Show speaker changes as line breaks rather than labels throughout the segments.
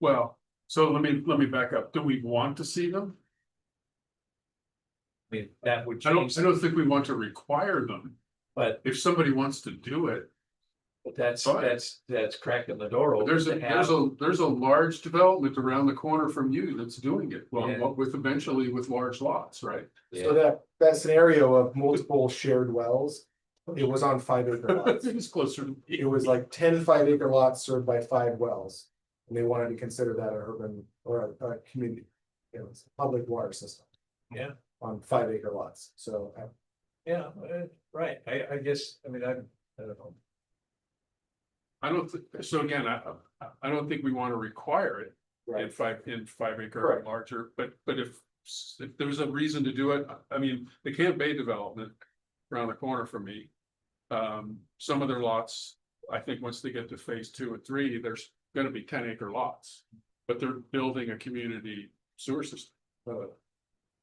Well, so let me, let me back up. Do we want to see them?
I mean, that would
I don't,
change,
I don't think we want to require them.
but
If somebody wants to do it,
that's,
Fine.
that's, that's cracking the door open
there's a,
to
there's
have.
a, there's a large development around the corner from you that's doing it. Well,
Yeah.
what with eventually with large lots, right?
So that, that scenario of multiple shared wells, it was on five acre lots.
It's closer to.
It was like 10 5 acre lots served by five wells. And they wanted to consider that an urban or a, a community, you know, it's a public water system.
Yeah.
On five acre lots, so uh,
Yeah, uh, right, I, I guess, I mean, I, I don't know.
I don't, thi- so again, I, I- I don't think we want to require it in
Right.
five, in five acre or
Correct.
larger, but, but if. If there's a reason to do it, I- I mean, the Camp Bay development around the corner from me. Um, some of their lots, I think once they get to phase two and three, there's gonna be ten acre lots. But they're building a community sewer system.
uh,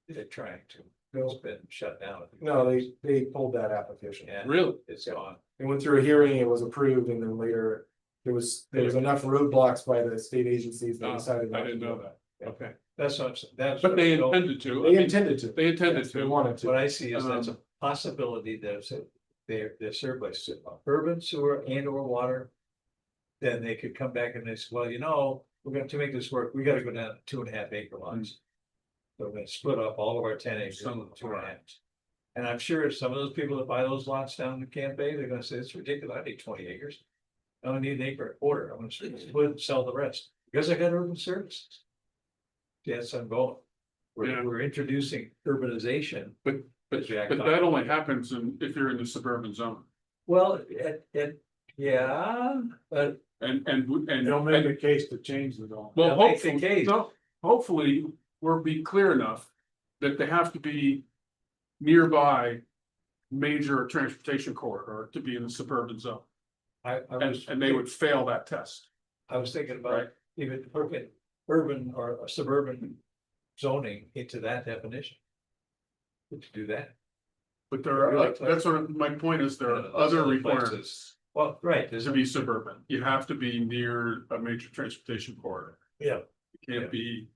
They're trying to, it's
no,
been shut down.
no, they, they pulled that application.
Yeah,
Really?
it's gone.
It went through a hearing, it was approved, and then later, there was, there was enough roadblocks by the state agencies. that
No,
decided
I
not to
didn't
do
know
it.
that. Okay,
That's what I'm, s- that's.
but
what
they
I'm told.
intended to. I
They
mean,
intended to.
They intended
Yes, They
to.
wanted to.
What I see is that's a
Um,
possibility that's, a- they're, they're served by se- uh, urban sewer and or water. Then they could come back and they say, well, you know, we're gonna to make this work, we gotta go down to two and a half acre lots. So we're gonna split up all of our ten acres
Hmm. Some
into
of the
two and a half.
farms.
And I'm sure some of those people that buy those lots down in Camp Bay, they're gonna say, it's ridiculous, I need twenty acres. I don't need an acre and a quarter, I'm gonna split and sell the rest, because I got urban services. Yes, I'm going.
Yeah.
We're, we're introducing urbanization.
But,
Jack
but
Doc-
that only happens in, if you're in the suburban zone
Well, it, it, yeah, but
and, and, w- and.
They'll
and-
make a case to change the zone.
Well,
They'll make the
hopefully,
case.
no, hopefully, we're being clear enough that they have to be nearby. Major transportation corridor to be in the suburban zone,
I, I
and,
was.
and they would fail that test.
I was thinking about
Right.
even urban, urban or suburban zoning into that definition. To do that,
But there are, like, that's what, my point is, there are other requirements
well, right, there's
to
a,
be suburban, you have to be near a major transportation corridor.
Yeah.
You can't be.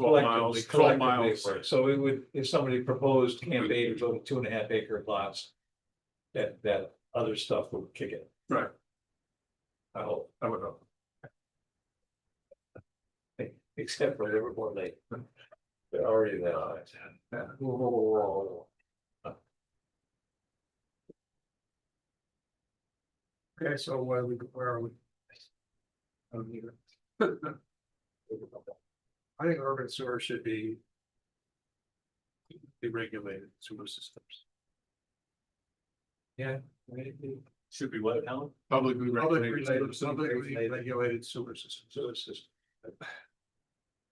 Twelve
collectively,
miles, twelve
collectively,
miles,
so it would, if somebody proposed Camp Bay to go to two and a half acre lots. That, that other stuff would kick it.
Right.
I hope,
I would hope.
except for Livermore Lake. They're already there.
Yeah.
Whoa, whoa, whoa, whoa, whoa.
Okay, so where we, where are we? I think urban sewer should be. Be regulated sewer systems.
Should be what, Alan?
Publicly
Public
regulated.
related, publicly regulated sewer systems.
So it's just.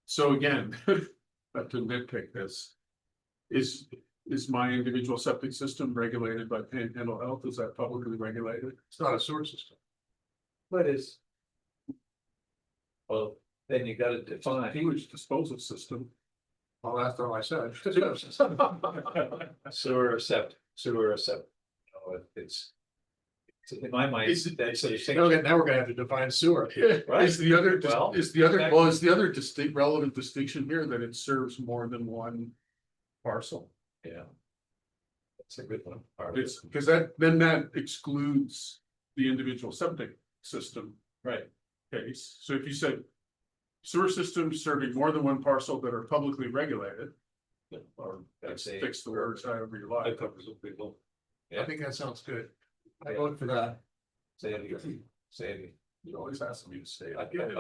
So again, but to nitpick this. Is, is my individual septic system regulated by Panhandle Health? Is that publicly regulated?
It's not a sewer system.
What is? Well, then you gotta define.
Sewage disposal system.
Well, that's all I said.
Sewer or septic, sewer or septic. No, it- it's. it's In my mind,
Is it-
that's a
Now we're
distinction.
gonna- now we're gonna have to define sewer.
Right.
Is the other, dis-
Well,
is the other,
exactly.
well, is the other distinct, relevant distinction here that it serves more than one parcel?
Yeah. That's a good one. All right.
It's, because that, then that excludes the individual septic system
Right,
case. So if you said sewer systems serving more than one parcel that are publicly regulated,
or
that's
that's a.
fix the words however you
I
like.
covers a big one.
I think that sounds good. I
Yeah.
vote for that.
Say it again, say it
You always ask me to say it.
again.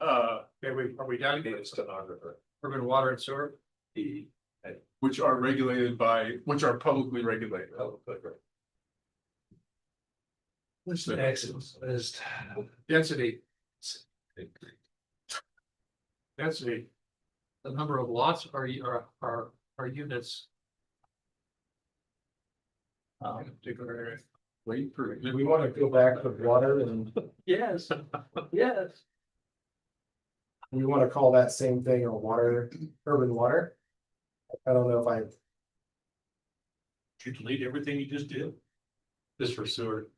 Uh,
Okay, we, are we
I
down
need
to
a stenographer.
urban water and sewer?
E.
which are regulated by, which are publicly regulated.
oh, good, right.
Listen.
Excellent. List.
Density, density,
the number of lots or, u- or, or, or units.
in a particular area.
Wait for.
Do we wanna go back to water and
Yes, yes.
we wanna call that same thing a water, urban water? I don't know if I,
You delete everything you just did? Just for sewer.